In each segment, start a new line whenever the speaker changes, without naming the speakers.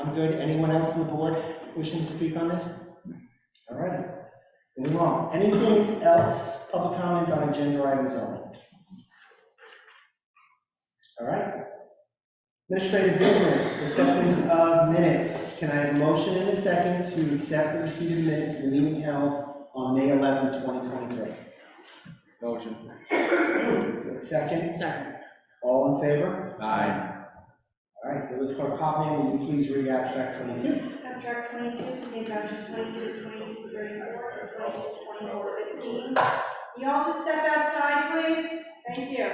I'm good. Anyone else on the board wishing to speak on this? All right, moving on. Anything else, public comment on agenda items only? All right. Administrative business, acceptance of minutes. Can I have a motion in a second to accept the receipt of minutes of the meeting held on May 11, 2023?
Motion.
Second,
Second.
all in favor?
Aye.
All right, Village Clerk Hopman, will you please read abstract 22?
Abstract twenty-two, contains vouchers twenty-two, twenty-two, thirty-four, twenty-two, twenty-four, fifteen. You all just step outside, please? Thank you.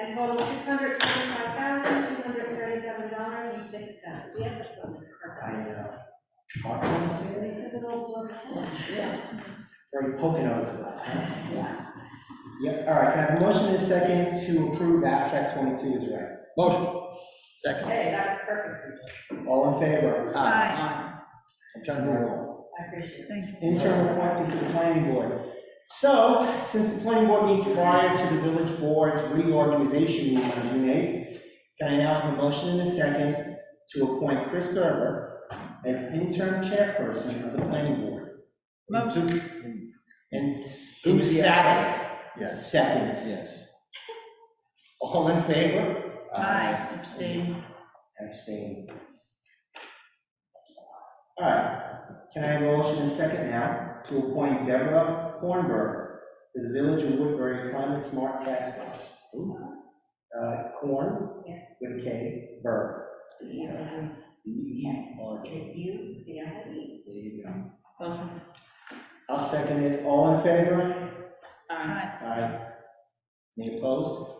And total six hundred twenty-five thousand, two hundred thirty-seven dollars and six cents. We have to put the current price.
Mark, you want to say anything?
It's an old one, so much.
Yeah.
Very Poconos of us, huh? Yep, all right, can I have a motion in a second to approve abstract 22 is read?
Motion. Second.
Hey, that's perfect.
All in favor?
Aye.
Aye.
I'm trying to roll.
I appreciate it.
Interim appointment to the planning board. So, since the planning board meets prior to the village board's reorganization meeting on June 8th, can I now have a motion in a second to appoint Chris Gerber as interim chairperson of the planning board?
Motion.
Enthusiastic.
Yes.
Second.
Yes.
All in favor?
Aye, abstain.
Abstain. All right, can I have a motion in second now to appoint Deborah Kornberg to the Village of Woodbury Climate Smart Task Force? Uh, Korn
Yeah.
with K, Berg.
See, I have it.
B-E-R-G.
If you, see, I have it.
There you go.
Motion.
I'll second it. All in favor?
Aye.
Aye. Any opposed?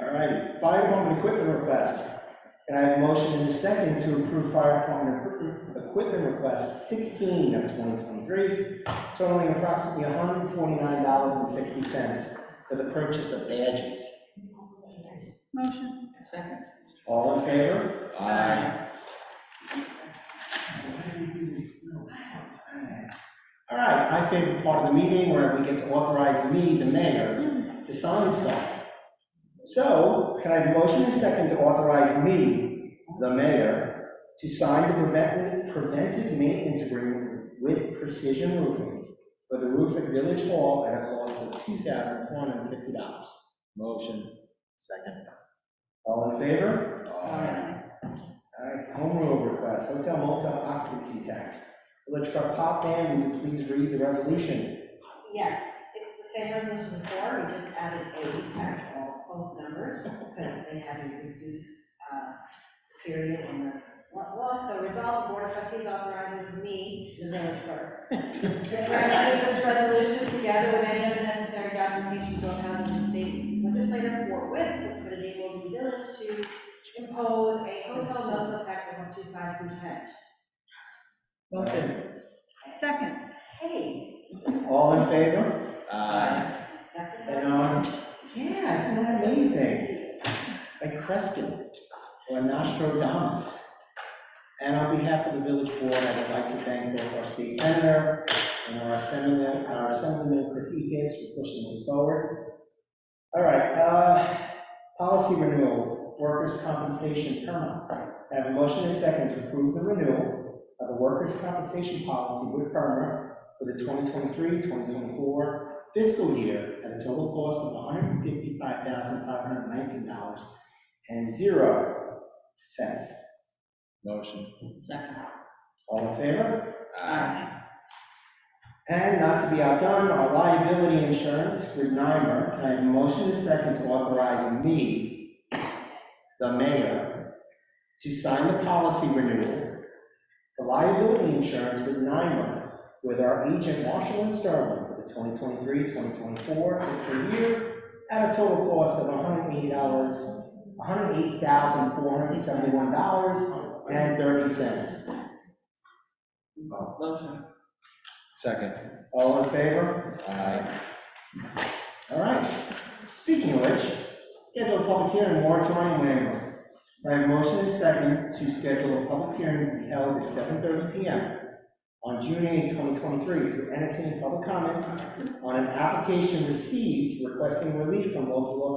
All righty, fire department equipment request. Can I have a motion in a second to approve fire department equipment- equipment request sixteen of twenty twenty-three, totaling approximately hundred and forty-nine dollars and sixty cents for the purchase of badges.
Motion. Second.
All in favor?
Aye.
All right, my favorite part of the meeting where we get to authorize me, the mayor, to sign stuff. So can I have a motion in a second to authorize me, the mayor, to sign the preventive, preventive maintenance agreement with Precision Roofing for the roof at Village Hall at a cost of two thousand four hundred and fifty dollars?
Motion. Second.
All in favor?
Aye.
All right, home rule request, hotel motel occupancy tax. Village Clerk Hopman, will you please read the resolution?
Yes, it's the same resolution before, we just added A's after all, both numbers, because they had a reduced, uh, period in the law. So resolve, the board of trustees authorizes me, the village clerk, to grant this resolution together with any other necessary documentation to account for the state legislature forthwith, which would enable the village to impose a hotel motel tax of one two five percent.
Motion.
Second,
Hey,
All in favor?
Aye.
second.
And, um, yeah, isn't that amazing? Like Creston or Nostradamus. And on behalf of the village board, I would like to thank both our state senator and our assemblyman, our assemblyman Chris Ekis for pushing this forward. All right, uh, policy renewal, workers' compensation perma. I have a motion and a second to approve the renewal of the workers' compensation policy with perma for the 2023-2024 fiscal year at a total cost of $155,519 and zero cents.
Motion.
Second.
All in favor?
Uh,
Aye.
And not to be outdone, our liability insurance with NYMER, can I have a motion and a second to authorize me, the mayor, to sign the policy renewal, the liability insurance with NYMER, with our agent Marshall and Sterling for the 2023-2024 fiscal year at a total cost of $180, $108,471.30.
Motion.
Second.
All in favor?
Aye.
All right, speaking of which, schedule a public hearing moratorium waiver. I have a motion and a second to schedule a public hearing to be held at seven thirty P M on June eighth, twenty twenty-three, to entertain public comments on an application received requesting relief from local law